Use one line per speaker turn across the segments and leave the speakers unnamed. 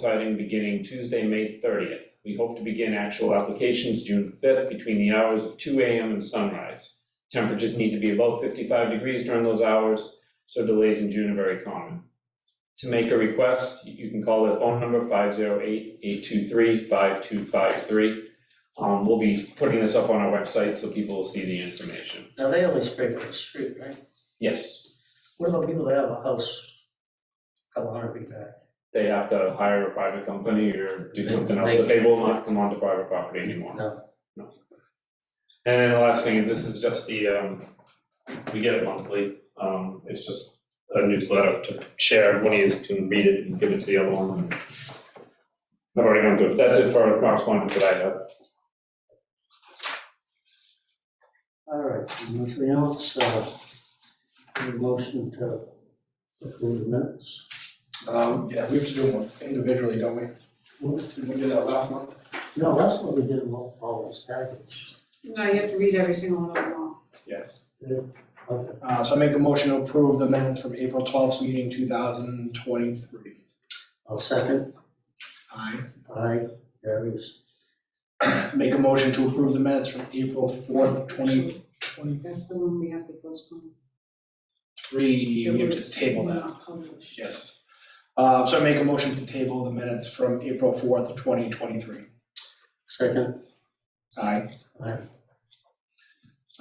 siding beginning Tuesday, May thirtieth. We hope to begin actual applications June fifth between the hours of two AM and sunrise. Temperatures need to be above fifty-five degrees during those hours, so delays in June are very common. To make a request, you can call their phone number 508-823-5253. Um, we'll be putting this up on our website so people will see the information.
Now, they only scrape the street, right?
Yes,
What about people that have a house, a couple hundred feet back?
they have to hire a private company or do something else, but they will not come onto private property anymore.
No,
And then the last thing is, this is just the, um, we get it monthly, um, it's just a newsletter to share, one of you can read it and give it to the other one. I've already gone through, it. that's it for correspondence that I have.
all right, nothing else, uh, any motion to approve the minutes?
Um, yeah, we have to do them individually, don't we? Did we do that last month?
No, that's what we did in all, all this package.
No, you have to read every single one of them all.
Okay,
Uh, so I make a motion to approve the minutes from April twelfth meeting, two thousand twenty-three.
I'll second,
Aye.
aye, there is,
Make a motion to approve the minutes from April fourth, twenty twenty-three.
That's the one we have to postpone.
We have
It
to
was
table that,
not published.
yes. Uh, so I make a motion to table the minutes from April fourth, twenty twenty-three.
second,
Aye.
aye,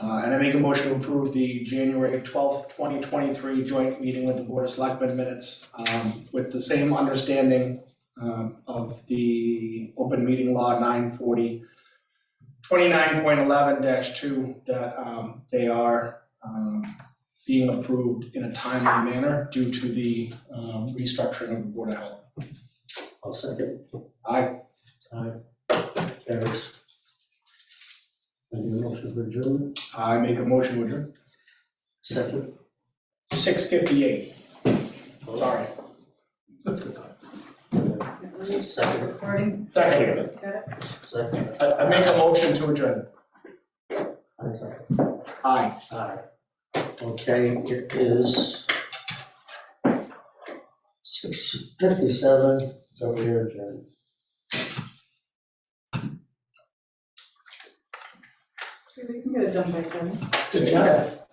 Uh, and I make a motion to approve the January twelfth, twenty twenty-three joint meeting with the Board of Selectmen minutes, um, with the same understanding, um, of the open meeting law nine forty twenty-nine point eleven dash two, that, um, they are, um, being approved in a timely manner due to the, um, restructuring of the Board of Health.
I'll second,
Aye,
aye, there is. Any motion for adjournment,
I make a motion, would you?
second,
Six fifty-eight, sorry. That's the time.
Yeah, Let me stop the recording.
Second.
Got it?
second,
I, I make a motion to adjourn.
aye, second.
Aye.
Aye. Okay, it is six fifty-seven, so we are adjourned.
We can get it done by seven.
Good job.